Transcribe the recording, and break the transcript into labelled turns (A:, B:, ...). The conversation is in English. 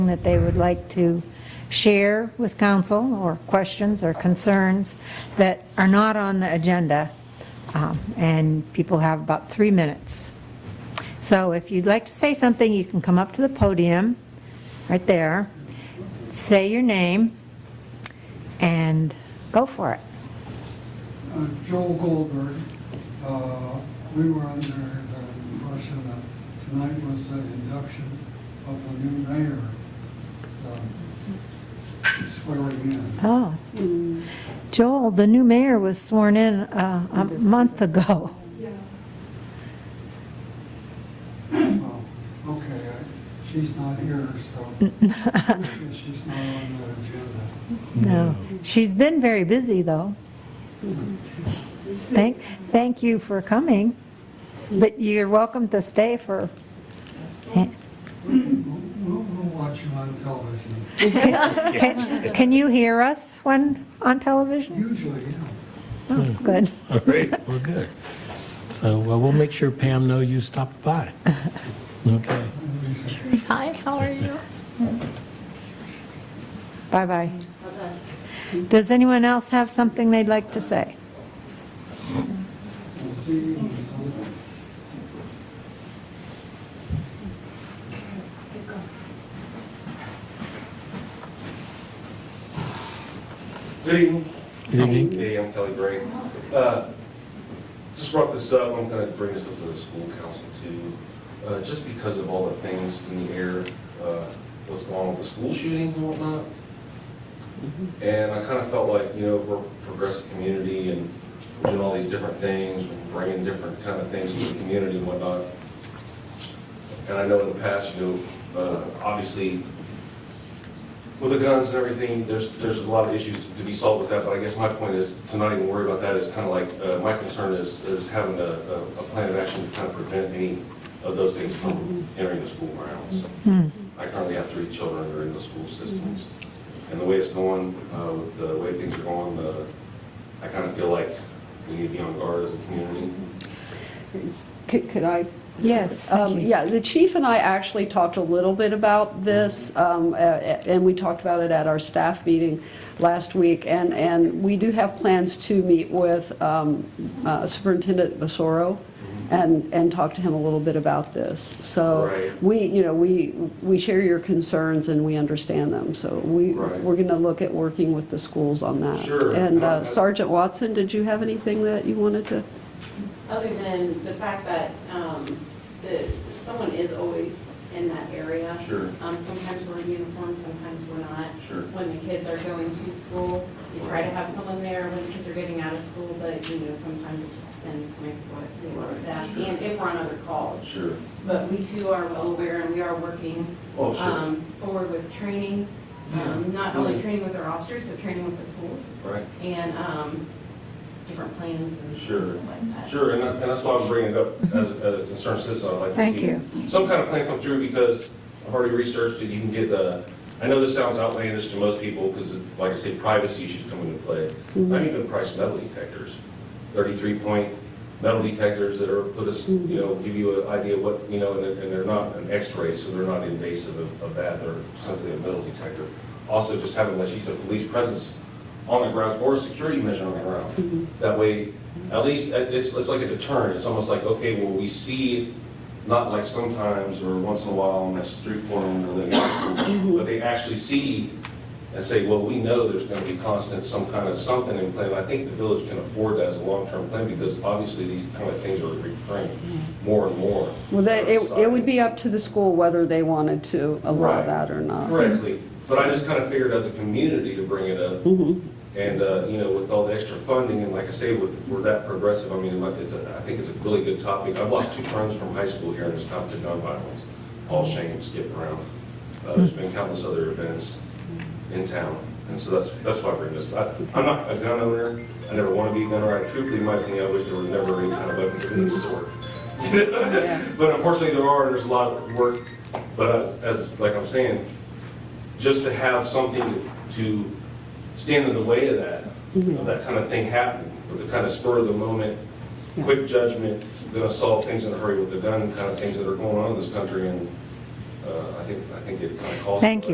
A: that they would like to share with council, or questions or concerns that are not on the agenda, Um, and people have about three minutes. So if you'd like to say something, you can come up to the podium, right there, say your name, and go for it.
B: Uh, Joel Goldberg, uh, we were under the impression that tonight was the induction of the new mayor um, swearing in.
A: Oh. Joel, the new mayor was sworn in uh, a month ago.
B: Well, Oh, Okay, I- she's not here, so she's not on the agenda.
A: No. She's been very busy, though. Thank, thank you for coming, but you're welcome to stay for,
B: We'll we'll watch you on television,
A: can can you hear us when, on television?
B: usually, yeah.
A: Oh, good.
C: All right, we're good. So, well, we'll make sure Pam know you stopped by. Okay.
D: Hi, how are you?
A: Bye-bye. Does anyone else have something they'd like to say?
B: We'll see you in December.
E: Good evening.
C: Good evening.
E: Hey, I'm Kelly Gray. Uh, Just brought this up, I'm going to bring this up to the school council too. Uh, Just because of all the things in the air, uh, what's going on with the school shootings and whatnot. And I kind of felt like, you know, we're a progressive community and we're doing all these different things, we're bringing different kind of things to the community and whatnot. And I know in the past, you know, uh, obviously, with the guns and everything, there's, there's a lot of issues to be solved with that, but I guess my point is, to not even worry about that is kind of like, uh, my concern is, is having a, a a plan of action to kind of prevent any of those things from entering the school grounds. I currently have three children that are in the school systems, and the way it's going, uh, with the way things are going, uh, I kind of feel like we need to be on guard as a community.
F: Could could I?
A: Yes,
F: Um, Yeah, the chief and I actually talked a little bit about this, um, a- a- and we talked about it at our staff meeting last week. And, and we do have plans to meet with um, uh, Superintendent Basoro
E: Mm-hmm.
F: and, and talk to him a little bit about this. So
E: Right.
F: we, you know, we, we share your concerns and we understand them. So we,
E: Right.
F: we're going to look at working with the schools on that.
E: Sure.
F: And
E: Uh,
F: uh, Sergeant Watson, did you have anything that you wanted to?
G: Other than the fact that um, the- someone is always in that area.
E: Sure.
G: Um, Sometimes we're in uniform, sometimes we're not.
E: Sure.
G: When the kids are going to school, you try to have someone there when the kids are getting out of school, but you know, sometimes it just depends on what they want
E: Right,
G: staff
E: sure.
G: and if we're on other calls.
E: Sure.
G: But we too are well aware and we are working
E: Oh, sure, Mm-hmm.
G: um, forward with training, um, not only training with our officers, but training with the schools
E: right.
G: and um, different plans and
E: Sure.
G: stuff like that.
E: Sure, and that- and that's why I'm bringing it up as a as a concerned citizen. I'd like
A: Thank
E: to see
A: you.
E: some kind of plan come through because I've already researched it. You can get the, I know this sounds outlandish to most people because, like I say, privacy issues come into play.
A: Mm-hmm.
E: I've even priced metal detectors, 33-point metal detectors that are, put us, you know, give you an idea what, you know, and they're- and they're not an X-ray, so they're not invasive of of that. They're simply a metal detector. Also, just having, like she said, police presence on the grounds or a security measure on the ground.
F: Mm-hmm.
E: That way, at least, uh, it's, it's like a deterrent, it's almost like, okay, well, we see, not like sometimes or once in a while on that street corner when they're living out,
F: Mm-hmm.
E: but they actually see and say, well, we know there's gonna be constant, some kind of something in play. And I think the village can afford that as a long-term plan because obviously these kind of things are recurring more and more.
F: Well, they- it it would be up to the school whether they wanted to allow
E: Right.
F: that or not.
E: Correctly, but I just kind of figured as a community to bring it up. And, uh, you know, with all the extra funding, and like I say, with, we're that progressive, I mean, like, it's, a- I think it's a really good topic. I've lost two friends from high school here in this topic of gun violence, Paul Shane and Skip Brown. Uh, There's been countless other events in town, and so that's, that's why I bring this. I- I'm not a gun owner, I never want to be a gun owner, I truthfully, in my opinion, I wish there was never any kind of weapons of any sort.
F: Yeah.
E: But unfortunately, there are, there's a lot of work, but as- as, like I'm saying, just to have something to stand in the way of that,
A: Mm-hmm.
E: of that kind of thing happening, with the kind of spur of the moment, quick judgment, gonna solve things in a hurry with the gun kind of things that are going on in this country, and uh, I think, I think it kind of calls. for
A: Thank
E: that.
A: you.